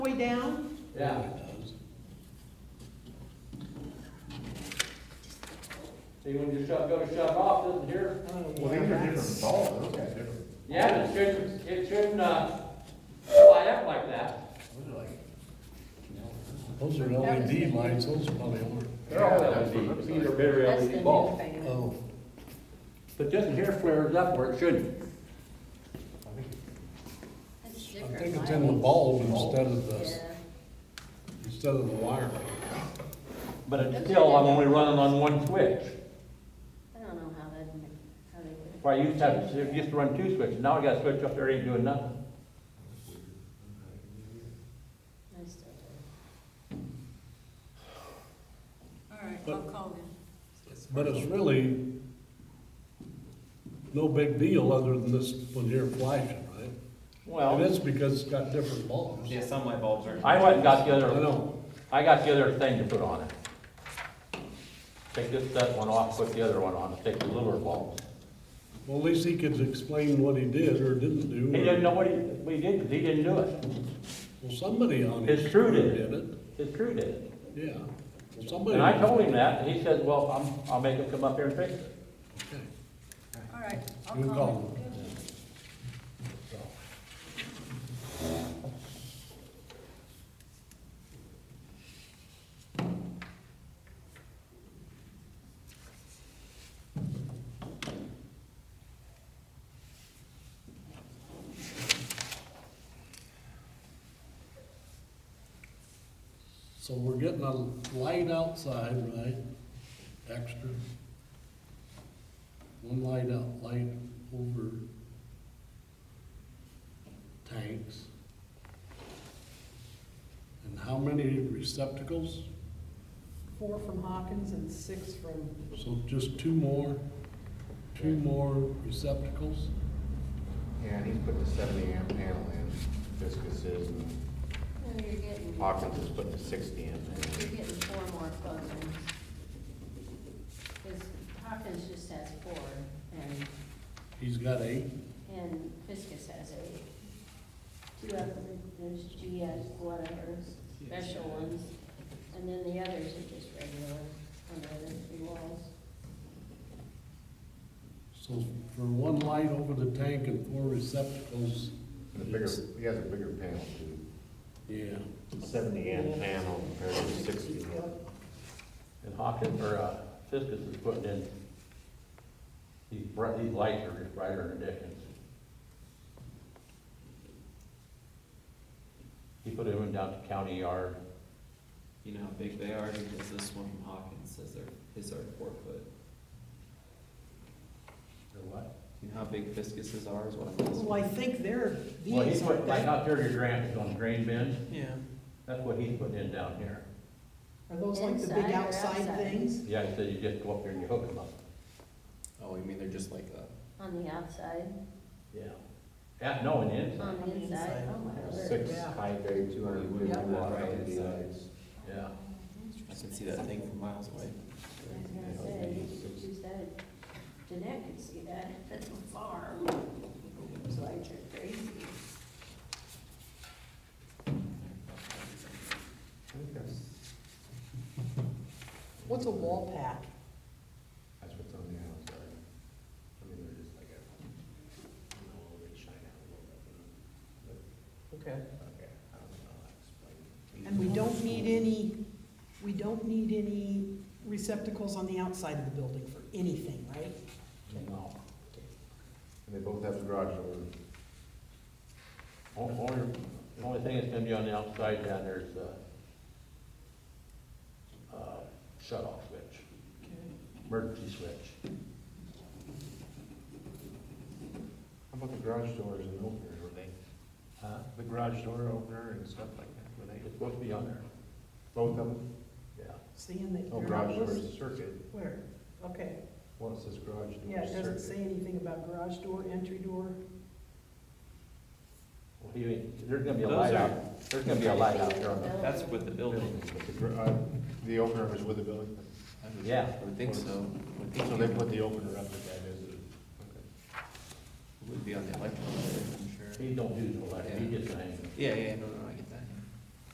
down? Yeah. So you want to just shut, go to shut off, doesn't hear? Well, these are different balls, those are different. Yeah, but it shouldn't, it shouldn't, uh, light up like that. Those are like- Those are LED lights, those are probably older. They're all That would be- different. These are very That's the LED new bulbs. fan. Oh, But doesn't hear flares up where it shouldn't. That's I different think it's in the lighting. bulb instead of the, Yeah. instead of the wire. But it's still, I'm only running on one switch. I don't know how that, how they would. Where I used to have, you used to run two switches, now I got a switch up there, ain't doing nothing. I still do. All right, I'll But- call them. But it's really no big deal other than this one here flashing, right? And Well, it's because it's got different bulbs. Yeah, some light bulbs are. I went and got the I other, know, I got the other thing to put on it. Take this, that one off, put the other one on, take the liver bulbs. well, at least he could explain what he did or didn't do. He or- didn't know what he, what he did, 'cause he didn't do it. Well, somebody on It's his true, crew did it? did it, His crew did it. yeah. Well, somebody. And I told him that, and he said, well, I'm, I'll make him come up here and fix it. Okay. All right, I'll You call call them. So we're getting a light outside, right? Extra. One light out, light over tanks. And how many receptacles? Four from Hawkins and six from, So just two more, two more receptacles? Yeah, and he's putting a seventy amp panel in, Fiskus is, and Well, you're getting, Hawkins is putting a sixty amp in. you're getting four more phones. Cause Hawkins just has four and, He's got eight? and Fiskus has eight. Two of them, there's GS, whatever, special ones. And then the others are just regular on the other three walls. So for one light over the tank and four receptacles, And the bigger, he has a bigger panel too. yeah. Seventy amp panel compared to sixty. And Hawkins, or, uh, Fiskus is putting in, these bright, these lights are just brighter than Dickens. He put it in down to county yard. You know how big they are, because this one from Hawkins says they're, his are four foot. Or what? You know how big Fiskus's are is what I'm asking. well, I think they're, Well, he these are put, like, that. out there, your grant is on grain bins, Yeah. that's what he's putting in down here. Are those like the big Inside or outside outside? things? Yeah, he said you just go up there and you hook them up. Oh, you mean they're just like a. On the outside, Yeah. Yeah, no, and inside, on the inside, oh my word. Six, high bay, two hundred and fifty Yeah. watt Right, LED inside. lights. yeah. I can see that thing from miles away. I was gonna say, you could use that, Jeanette could see that at the farm. Those lights are crazy. I think That's What's a wall pack? that's what's on the outside. I mean, they're just like a, you know, a little bit shine out a little bit. you know, Okay. but, Okay, I don't know how to explain it. And we don't need any, we don't need any receptacles on the outside of the building for anything, right? No. And they both have the garage door. Only, only- the only thing that's gonna be on the outside down there is the, uh, shut off switch, emergency switch. How about the garage doors and openers, were they, Huh? the garage door opener and stuff like that, were they It's supposed to be on there, both of them? yeah. Seeing that Oh, they're not garage door listed. is circuit, Where? Okay, one says garage door yeah, it doesn't is say circuit. anything about garage door, entry door. Well, he, there's gonna be a Those light are- out, there's gonna be a light out there on the, That's with the building. The gar- uh, The opener is with the building, I would- Yeah. I would think so. I would think so they it put the opener up at that, is it? Okay. Would be on the electrical, I'm sure. he don't do no light, he just hangs. Yeah, yeah, no, no,